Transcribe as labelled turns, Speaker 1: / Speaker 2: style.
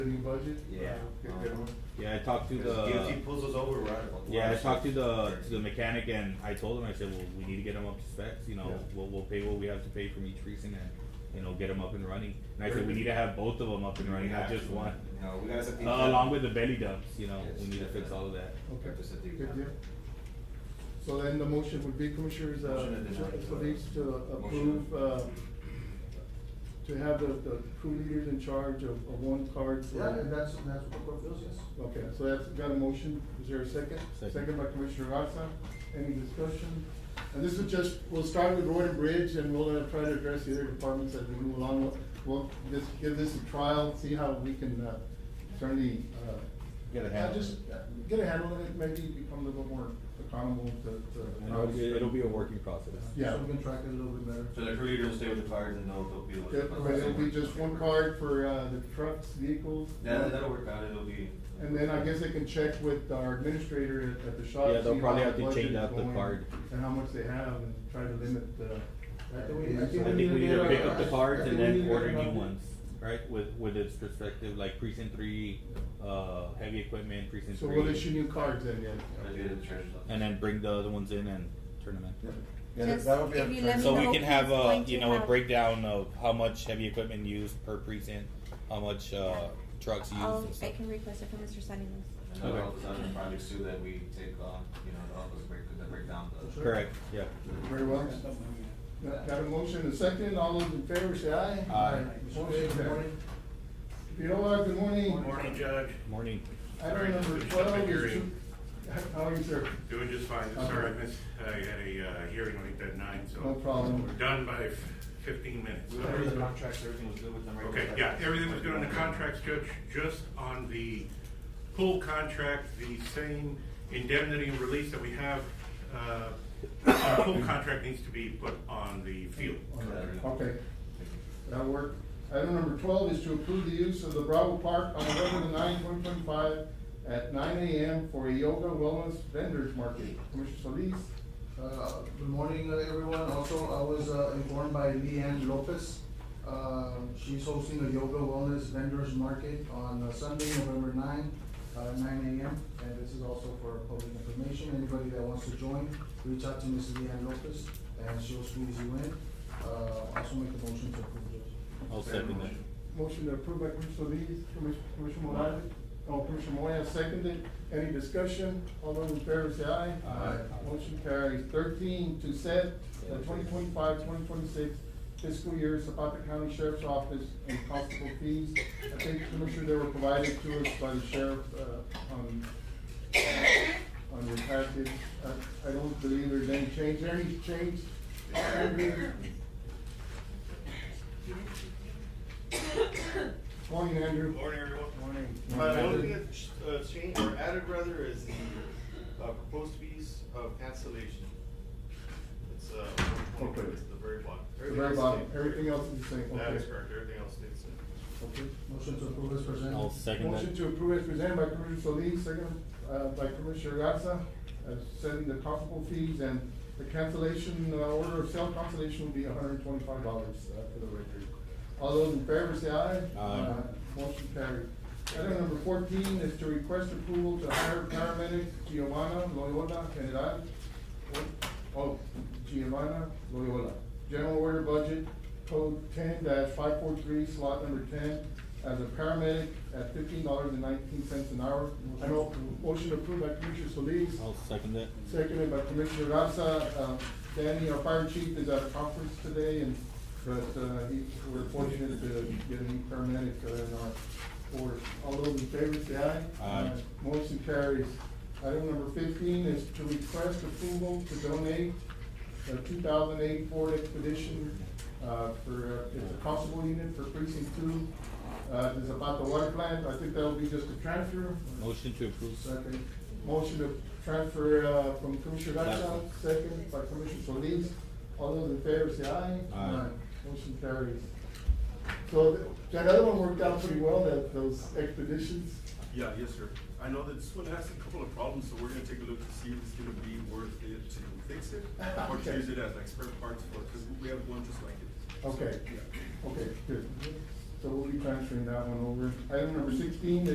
Speaker 1: New budget?
Speaker 2: Yeah. Um,
Speaker 1: Good, good one.
Speaker 3: Yeah, I talked to
Speaker 2: Because DOT
Speaker 3: the,
Speaker 2: pulls us over, we're out of.
Speaker 3: yeah, I talked to the, to the mechanic and I told him, I said, well, we need to get him up to specs, you know,
Speaker 1: Yeah.
Speaker 3: we'll, we'll pay what we have to pay from each precinct and, you know, get him up and running. And I
Speaker 1: Very
Speaker 3: said, we
Speaker 1: good.
Speaker 3: need to have both of them up and
Speaker 2: We
Speaker 3: running, not
Speaker 2: have
Speaker 3: just
Speaker 2: to.
Speaker 3: one.
Speaker 2: No, we gotta set
Speaker 3: Uh,
Speaker 2: the.
Speaker 3: along with the belly dumps, you know,
Speaker 2: Yes,
Speaker 3: we need to fix
Speaker 2: definitely.
Speaker 3: all of that.
Speaker 1: Okay,
Speaker 2: Just a deep
Speaker 1: good
Speaker 2: dive.
Speaker 1: deal. So then the motion would be Commissioners, uh,
Speaker 2: Motion to deny.
Speaker 1: for these to
Speaker 2: Motion.
Speaker 1: approve, uh, to have the, the crew leaders in charge of, of one card. for-
Speaker 4: Yeah, and that's, that's what the court feels, yes.
Speaker 1: Okay, so that's got a motion, is there a second?
Speaker 3: Second.
Speaker 1: by Commissioner Garza, any discussion? And this is just, we'll start with road and bridge, and we'll uh, try to address the other departments as we move along. We'll- We'll just give this a trial, see how we can, uh, certainly, uh.
Speaker 3: Get a
Speaker 1: uh,
Speaker 3: handle.
Speaker 1: Just uh, get a handle on it, maybe become a little more economical to,
Speaker 3: And it'll,
Speaker 1: to.
Speaker 3: it'll be a working process.
Speaker 1: Yeah.
Speaker 4: So we can track it a little bit better.
Speaker 2: So the crew leader will stay with the cards and they'll, they'll be with.
Speaker 1: Yeah,
Speaker 2: us.
Speaker 1: but it'll be just one card for, uh, the trucks, vehicles.
Speaker 2: That, that'll work out, it'll be.
Speaker 1: And then I guess they can check with our administrator at, at the shop.
Speaker 3: Yeah, they'll
Speaker 1: see
Speaker 3: probably
Speaker 1: how
Speaker 3: have
Speaker 1: the
Speaker 3: to
Speaker 1: budget
Speaker 3: change
Speaker 1: is
Speaker 3: out the
Speaker 1: going
Speaker 3: card.
Speaker 1: And how much they have and try to limit the.
Speaker 4: I think we- I think
Speaker 3: I think we need to
Speaker 4: Yeah.
Speaker 3: pick up the cards and then
Speaker 4: Yeah.
Speaker 3: order new ones, right, with, with its perspective, like precinct three, uh, heavy equipment, precinct
Speaker 1: So
Speaker 3: three.
Speaker 1: we'll issue new cards then,
Speaker 2: That'll
Speaker 1: yeah.
Speaker 2: be at the treasurer's office.
Speaker 3: And then bring the other ones in and turn them in.
Speaker 5: Yeah, that- that would be
Speaker 6: Just
Speaker 5: a
Speaker 6: if you let me
Speaker 3: So we
Speaker 6: know
Speaker 3: can have
Speaker 6: who's
Speaker 3: a,
Speaker 6: going
Speaker 3: you
Speaker 6: to
Speaker 3: know, a
Speaker 6: have-
Speaker 3: breakdown of how much heavy equipment used per precinct, how much, uh, trucks used
Speaker 6: I'll,
Speaker 3: and stuff.
Speaker 6: Um, I can request it from Mr. Salinas.
Speaker 2: And then
Speaker 3: Okay.
Speaker 2: all those other projects too that we take on, you know, the office break, that break down the.
Speaker 3: Correct, yeah.
Speaker 1: Very well. Got got a motion and a second, all those in favor say aye.
Speaker 3: Aye.
Speaker 1: Motion carried. Fiola, good morning.
Speaker 7: Morning, Judge.
Speaker 3: Morning.
Speaker 1: Item number
Speaker 7: Sorry,
Speaker 1: twelve
Speaker 7: public
Speaker 1: is.
Speaker 7: hearing.
Speaker 1: How are you, sir?
Speaker 7: Doing just fine.
Speaker 1: Okay.
Speaker 7: Sorry, I missed, I had a uh, hearing late that night, so.
Speaker 1: No problem.
Speaker 7: We're done by fifteen minutes.
Speaker 2: We went over the contracts, everything was good with them, right?
Speaker 7: Okay, yeah, everything was good on the contracts, Judge. Just on the pool contract, the same indemnity and release that we have, uh, our pool contract needs to be put on the field.
Speaker 1: Okay. That work. Item number twelve is to approve the use of the Bravo Park on November the ninth, twenty twenty-five at nine AM for a yoga wellness vendors market. Commissioner Solis,
Speaker 4: Uh, good morning, uh, everyone. Also, I was uh, informed by Leanne Lopez. Uh, she's hosting a yoga wellness vendors market on uh, Sunday, November nine, uh, nine AM. And this is also for public information. Anybody that wants to join, reach out to Mrs. Leanne Lopez and she'll squeeze you in. Uh, also make the motion to approve it.
Speaker 3: I'll second that.
Speaker 1: motion to approve by Commissioner Solis, Commissioner, Commissioner Morales, oh, Commissioner Moya seconded. Any discussion? All those in favor say aye.
Speaker 4: Aye.
Speaker 1: Motion carries. Thirteen, to set the 2025-2026 fiscal year Zapata County Sheriff's Office and constable fees. I think, Commissioner, they were provided to us by the sheriff, uh, um, on, on your package. I, I don't believe there's any change. There any change? Andrew? Morning, Andrew.
Speaker 8: Morning, everyone.
Speaker 1: Morning.
Speaker 8: Uh, the only thing that, uh, changed or added rather is the, uh, proposed fees of cancellation. It's, uh, one
Speaker 1: Okay.
Speaker 8: twenty, it's the very bottom.
Speaker 1: The
Speaker 8: Everything
Speaker 1: very
Speaker 8: else
Speaker 1: bottom,
Speaker 8: stays-
Speaker 1: everything else is the same,
Speaker 8: That is
Speaker 1: okay.
Speaker 8: correct, everything else stays the
Speaker 1: Okay.
Speaker 4: Motion to approve is presented.
Speaker 3: I'll second
Speaker 1: Motion to
Speaker 3: that.
Speaker 1: approve is presented by Commissioner Solis, second, uh, by Commissioner Garza, uh, setting the constable fees and the cancellation, uh, order of sale cancellation will be hundred and twenty-five dollars, uh, for the record. All those in favor say aye.
Speaker 3: Aye.
Speaker 1: Motion carried. Item number fourteen is to request approval to hire paramedic Giovanna Loyola General. Oh, Giovanna Loyola. General order budget, code ten five four three, slot number ten, as a paramedic at fifteen dollars and nineteen cents an hour. I know, motion approved by Commissioner Solis.
Speaker 3: I'll second that.
Speaker 1: Seconded by Commissioner Garza. Uh, Danny, our fire chief, is at a conference today, and, but, uh, he, we're fortunate to get a new paramedic uh, in our force. All those in favor, say aye. Uh,
Speaker 3: Aye.
Speaker 1: Motion carries. Item number fifteen is to request approval to donate a two thousand eight Ford Expedition, uh, for, uh, it's a constable unit for precinct two. Uh, it's about the water plant. I think that'll be just a transfer.
Speaker 3: Motion to approve.
Speaker 1: Second. Motion to transfer, uh, from Commissioner Garza,
Speaker 3: Second.
Speaker 1: second by Commissioner Solis. All those in favor say aye.
Speaker 3: Aye.
Speaker 1: Motion carries. So th- that other one worked out pretty well, that, those expeditions.
Speaker 8: Yeah, yes, sir. I know that this one has a couple of problems, so we're gonna take a look to see if it's gonna be worth it to fix it or to
Speaker 1: Okay.
Speaker 8: use it as like spare parts for, because we have one just like it.
Speaker 1: Okay, okay, good. so we'll be transferring that one over. Item number sixteen,